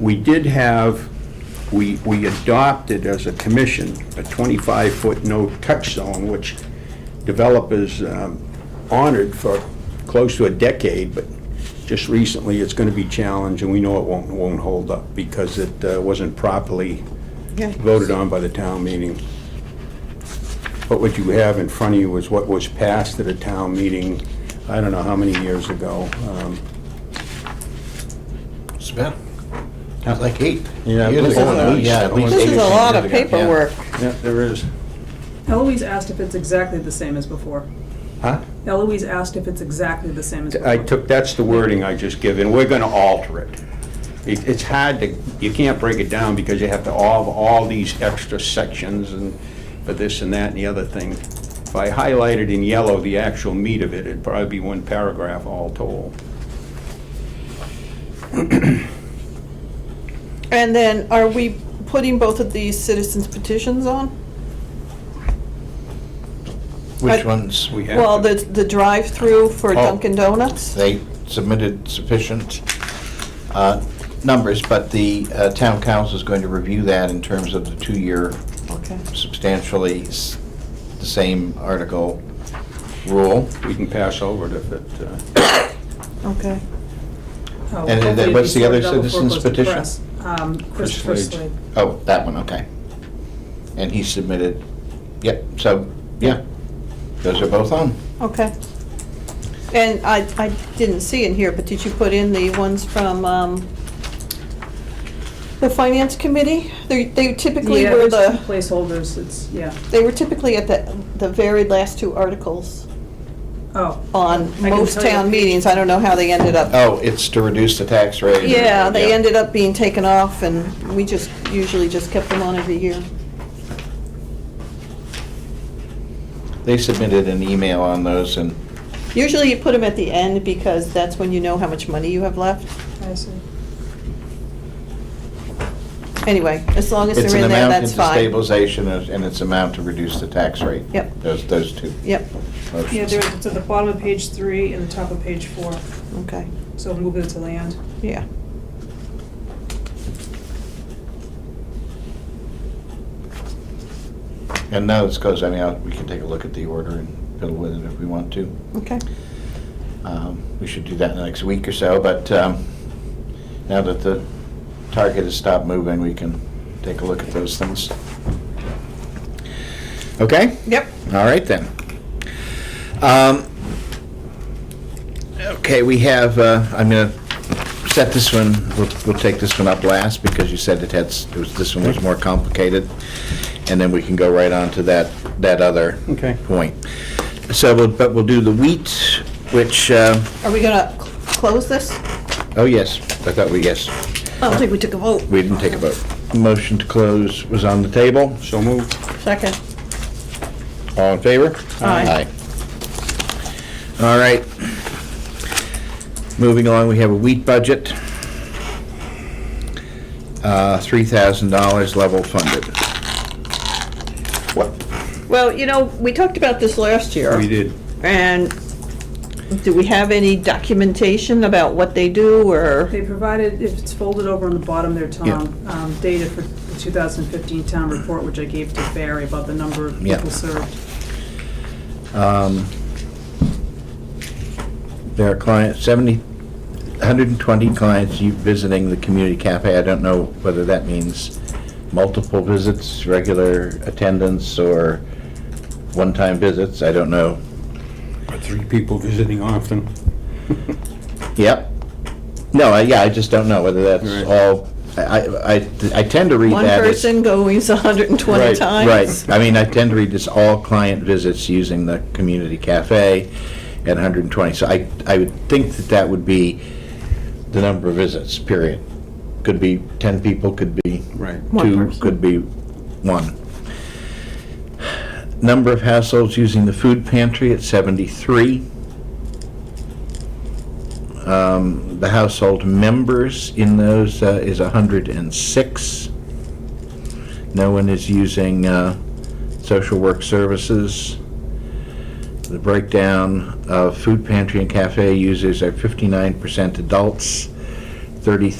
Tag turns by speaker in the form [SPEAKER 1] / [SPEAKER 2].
[SPEAKER 1] we did have, we, we adopted as a commission a 25-foot no-touch zone, which developers um, honored for close to a decade, but just recently, it's going to be challenged, and we know it won't, won't hold up because it uh, wasn't properly
[SPEAKER 2] Okay.
[SPEAKER 1] voted on by the town meeting. But what you have in front of you is what was passed at a town meeting, I don't know how many years ago. um,
[SPEAKER 3] It's been, it was like eight.
[SPEAKER 1] Yeah,
[SPEAKER 3] years
[SPEAKER 1] at least-
[SPEAKER 3] ago
[SPEAKER 2] at
[SPEAKER 3] now.
[SPEAKER 1] least-
[SPEAKER 3] Yeah,
[SPEAKER 1] at
[SPEAKER 3] at least
[SPEAKER 1] least
[SPEAKER 2] This
[SPEAKER 3] eight
[SPEAKER 2] is
[SPEAKER 3] or
[SPEAKER 2] a
[SPEAKER 3] ten
[SPEAKER 2] lot of
[SPEAKER 3] years ago. Yeah.
[SPEAKER 2] paperwork.
[SPEAKER 1] Yeah, there is.
[SPEAKER 4] Eloise asked if it's exactly the same as before.
[SPEAKER 1] Huh?
[SPEAKER 4] Eloise asked if it's exactly the same as
[SPEAKER 3] Uh,
[SPEAKER 4] before.
[SPEAKER 1] I took, that's the wording I just given, we're gonna alter it. It- It's hard to, you can't break it down because you have to all, all these extra sections and for this and that and the other thing. If I highlighted in yellow the actual meat of it, it'd probably be one paragraph all told.
[SPEAKER 2] And then, are we putting both of these citizens petitions on?
[SPEAKER 3] Which
[SPEAKER 2] I-
[SPEAKER 3] ones?
[SPEAKER 1] We have
[SPEAKER 2] Well,
[SPEAKER 1] to- Oh.
[SPEAKER 2] the, the drive-through for Dunkin' Donuts?
[SPEAKER 3] They submitted sufficient uh, numbers, but the uh, town council is going to review that in terms of the two-year
[SPEAKER 2] Okay.
[SPEAKER 3] substantially s- the same article rule.
[SPEAKER 1] We can pass over it if it, uh,
[SPEAKER 2] Okay.
[SPEAKER 4] Oh,
[SPEAKER 3] and
[SPEAKER 4] hopefully
[SPEAKER 3] what's the
[SPEAKER 4] it'll be
[SPEAKER 3] other
[SPEAKER 4] sorted out before it
[SPEAKER 3] citizen's
[SPEAKER 4] goes to
[SPEAKER 3] petition?
[SPEAKER 4] press. Um, Christopher
[SPEAKER 1] Slade.
[SPEAKER 4] Slade.
[SPEAKER 3] Oh, that one, okay. And he submitted, yep, so, yeah, those are both on.
[SPEAKER 2] Okay. And I, I didn't see in here, but did you put in the ones from, um, the finance committee? They, they typically
[SPEAKER 4] Yeah,
[SPEAKER 2] were
[SPEAKER 4] there's two
[SPEAKER 2] the,
[SPEAKER 4] placeholders, it's, yeah,
[SPEAKER 2] they were typically at the, the very last two articles
[SPEAKER 4] oh.
[SPEAKER 2] on
[SPEAKER 4] I can
[SPEAKER 2] most
[SPEAKER 4] tell you
[SPEAKER 2] town
[SPEAKER 4] if you-
[SPEAKER 2] meetings. I don't know how they ended up.
[SPEAKER 3] Oh, it's to reduce the tax rate.
[SPEAKER 2] Yeah, they ended up being taken off and we just, usually just kept them on every year.
[SPEAKER 3] They submitted an email on those and
[SPEAKER 2] Usually you put them at the end because that's when you know how much money you have left.
[SPEAKER 4] I see.
[SPEAKER 2] Anyway, as long as
[SPEAKER 3] it's
[SPEAKER 2] they're
[SPEAKER 3] an
[SPEAKER 2] in there,
[SPEAKER 3] amount
[SPEAKER 2] that's
[SPEAKER 3] into
[SPEAKER 2] fine.
[SPEAKER 3] stabilization and and it's amount to reduce the tax rate.
[SPEAKER 2] Yep.
[SPEAKER 3] Those, those two
[SPEAKER 2] Yep,
[SPEAKER 4] Yeah,
[SPEAKER 3] motions.
[SPEAKER 4] there, it's at the bottom of page three and the top of page four,
[SPEAKER 2] okay,
[SPEAKER 4] so move it to land.
[SPEAKER 2] yeah.
[SPEAKER 3] And now this goes, I mean, I'll- we can take a look at the order and fiddle with it if we want to.
[SPEAKER 2] Okay.
[SPEAKER 3] Um, We should do that in the next week or so, but um, now that the target has stopped moving, we can take a look at those things. Okay?
[SPEAKER 2] Yep.
[SPEAKER 3] All right then. Um, Okay, we have, uh, I'm going to set this one, we'll we'll take this one up last because you said it had, s- it was- this one was more complicated. And then we can go right on to that, that other
[SPEAKER 1] Okay.
[SPEAKER 3] point. So, we'll- but we'll do the wheat, which, uh,
[SPEAKER 2] Are we gonna cl- close this?
[SPEAKER 3] oh yes, I thought we, yes,
[SPEAKER 2] I don't think we took a vote.
[SPEAKER 3] we didn't take a vote. Motion to close was on the table.
[SPEAKER 1] so moved.
[SPEAKER 2] Second.
[SPEAKER 3] All in favor?
[SPEAKER 2] Aye.
[SPEAKER 3] Aye. All right. Moving along, we have a wheat budget. Uh, $3,000 level funded.
[SPEAKER 1] What?
[SPEAKER 2] Well, you know, we talked about this last year.
[SPEAKER 1] We did.
[SPEAKER 2] And do we have any documentation about what they do or?
[SPEAKER 4] They provided, if it's folded over on the bottom there, Tom, um, data for the 2015 town report, which I gave to Barry about the number of
[SPEAKER 3] Yeah.
[SPEAKER 4] people served.
[SPEAKER 3] Um, There are clients, 70, 120 clients you- visiting the community cafe. I don't know whether that means multiple visits, regular attendance, or one-time visits. I don't know.
[SPEAKER 1] Three people visiting often.
[SPEAKER 3] Yep. No, I- yeah, I just don't know whether that's
[SPEAKER 1] Right.
[SPEAKER 3] all, I, I- I, I tend to read
[SPEAKER 2] One
[SPEAKER 3] that as.
[SPEAKER 2] person goes hundred and twenty
[SPEAKER 1] Right,
[SPEAKER 2] times?
[SPEAKER 3] Right, I mean, I tend to read this all client visits using the community cafe at 120. So I, I would think that that would be the number of visits, period. Could be 10 people, could be
[SPEAKER 1] Right.
[SPEAKER 2] One
[SPEAKER 3] two,
[SPEAKER 2] person.
[SPEAKER 3] could be one. Number of households using the food pantry at 73. Um, The household members in those uh, is 106. No one is using uh, social work services. The breakdown of food pantry and cafe users are 59% adults, 33.